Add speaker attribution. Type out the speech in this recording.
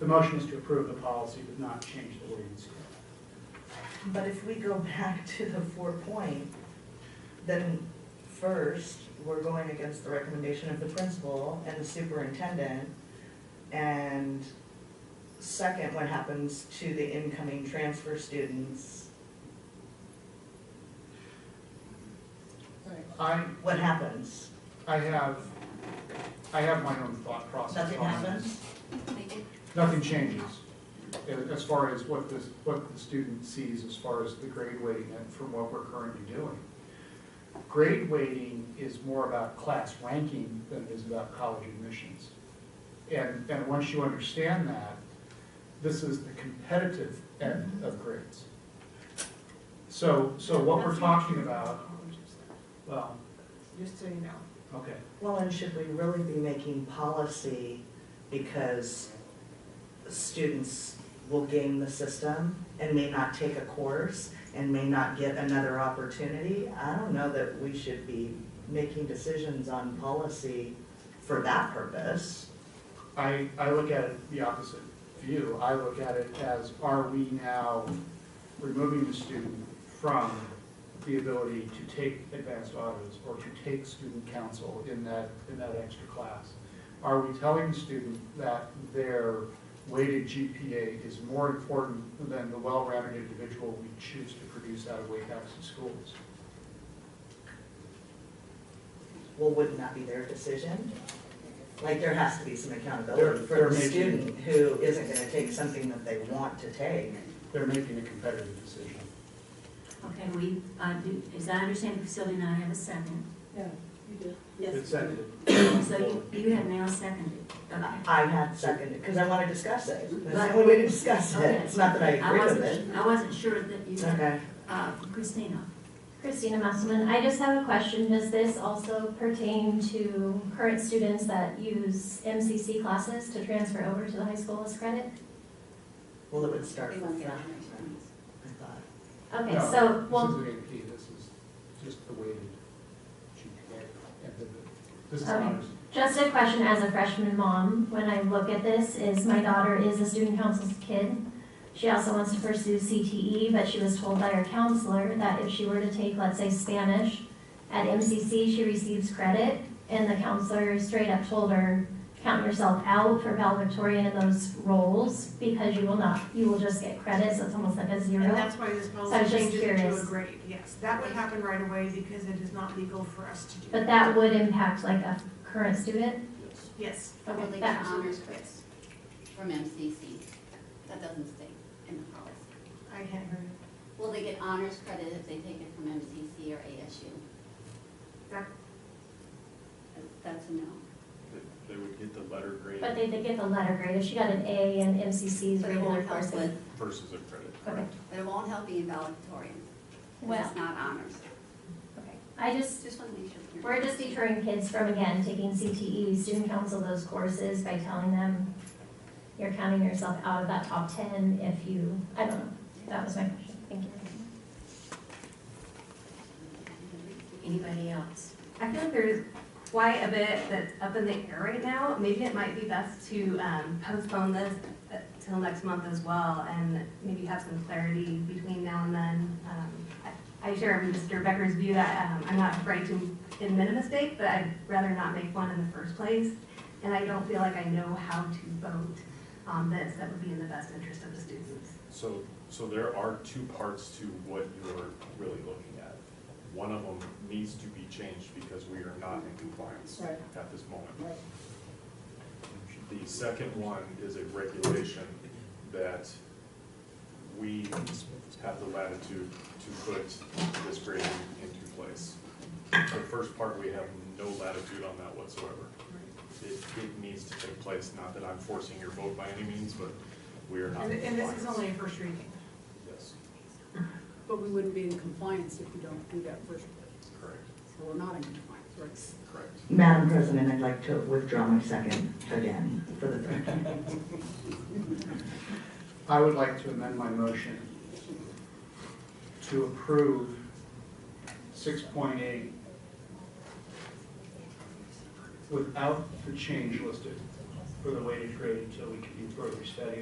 Speaker 1: The motion is to approve the policy, but not change the ordinance.
Speaker 2: But if we go back to the four point, then first, we're going against the recommendation of the principal and the superintendent. And second, what happens to the incoming transfer students?
Speaker 1: I,
Speaker 2: What happens?
Speaker 1: I have, I have my own thought process on this.
Speaker 2: Nothing happens?
Speaker 1: Nothing changes a- as far as what the, what the student sees as far as the grade weighting and from what we're currently doing. Grade weighting is more about class ranking than it is about college admissions. And, and once you understand that, this is the competitive end of grades. So, so what we're talking about, well,
Speaker 3: Just so you know.
Speaker 1: okay.
Speaker 2: Well, and should we really be making policy because students will game the system and may not take a course and may not get another opportunity? I don't know that we should be making decisions on policy for that purpose.
Speaker 1: I, I look at it the opposite view. I look at it as, are we now removing the student from the ability to take advanced autos or to take student counsel in that, in that extra class? Are we telling the student that their weighted GPA is more important than the well-rounded individual we choose to produce out of Wakehouse schools?
Speaker 2: Well, wouldn't that be their decision? Like, there has to be some
Speaker 1: They're- they're
Speaker 2: accountability for the
Speaker 1: making-
Speaker 2: student who isn't gonna take something that they want to take.
Speaker 1: They're making a competitive decision.
Speaker 4: Okay, we, uh, do, as I understand, Sylvia and I have a second.
Speaker 3: Yeah, you did.
Speaker 1: It's edited.
Speaker 4: So you, you have now seconded. Okay.
Speaker 2: I had seconded, because I want to discuss it. That's
Speaker 4: Right.
Speaker 2: the only way to discuss it.
Speaker 4: Okay.
Speaker 2: It's not that I agree with
Speaker 4: wasn't
Speaker 2: it.
Speaker 4: su- I wasn't sure that you, had-
Speaker 2: Okay.
Speaker 4: uh, Christina.
Speaker 5: Christina Musselman, I just have a question. Does this also pertain to current students that use MCC classes to transfer over to the high school as credit?
Speaker 2: Well, it would start from fresh, I thought.
Speaker 5: Okay,
Speaker 1: No,
Speaker 5: so, well,
Speaker 1: This isn't AP, this is just the weighted GPA. and the- This is
Speaker 5: Okay.
Speaker 1: honors.
Speaker 5: just a question as a freshman mom, when I look at this, is my daughter is a student council's kid. She also wants to pursue CTE, but she was told by her counselor that if she were to take, let's say, Spanish at MCC, she receives credit, and the counselor straight up told her, count yourself out for valedictorian in those roles, because you will not, you will just get credits, it's almost like a
Speaker 3: And
Speaker 5: zero.
Speaker 3: that's why this
Speaker 5: So I was
Speaker 3: policy
Speaker 5: just
Speaker 3: changes it to a
Speaker 5: curious.
Speaker 3: grade, yes. That would happen right away because it is not legal for us to do.
Speaker 5: But that would impact like a current student.
Speaker 3: Yes.
Speaker 5: Okay,
Speaker 6: Probably
Speaker 5: that-
Speaker 6: honors quiz from MCC. That doesn't stay in the policy.
Speaker 3: I can't hear you.
Speaker 6: Will they get honors credit if they take it from MCC or ASU?
Speaker 3: That,
Speaker 6: That's a no.
Speaker 7: They would get the letter grade
Speaker 5: But they did get the letter grade, if she got an A in MCC's
Speaker 6: But it
Speaker 5: regular
Speaker 6: won't help
Speaker 5: courses.
Speaker 6: with,
Speaker 7: versus a credit,
Speaker 5: Okay,
Speaker 7: correct?
Speaker 6: but it won't help being valedictorian. 'cause
Speaker 5: Well-
Speaker 6: It's not honors.
Speaker 5: okay. I just,
Speaker 6: Just want to make sure. that you're-
Speaker 5: We're just deterring kids from, again, taking CTE, student council those courses by telling them you're counting yourself out of that top ten if you, I don't know. That was my question. Thank you.
Speaker 4: Anybody else?
Speaker 8: I feel like there's quite a bit that's up in the air right now. Maybe it might be best to um, postpone this uh, till next month as well and maybe have some clarity between now and then. Um, I- I share Mr. Becker's view that um, I'm not afraid to admit a mistake, but I'd rather not make one in the first place. And I don't feel like I know how to vote on this that would be in the best interest of the students.
Speaker 7: So, so there are two parts to what you're really looking at. One of them needs to be changed because we are not in compliance at this moment. The second one is a regulation that we have the latitude to put this grading into place. The first part, we have no latitude on that whatsoever. It, it needs to take place, not that I'm forcing your vote by any means, but we are not
Speaker 3: and
Speaker 7: in
Speaker 3: and this
Speaker 7: compliance.
Speaker 3: is only a first reading.
Speaker 7: Yes,
Speaker 9: But we wouldn't be in compliance if we don't do that first,
Speaker 7: correct,
Speaker 9: so we're not in compliance, right?
Speaker 7: correct.
Speaker 2: Madam President, I'd like to withdraw my second again for the third time.
Speaker 1: I would like to amend my motion to approve six point eight without the change listed, for the weighted grade until we can do further study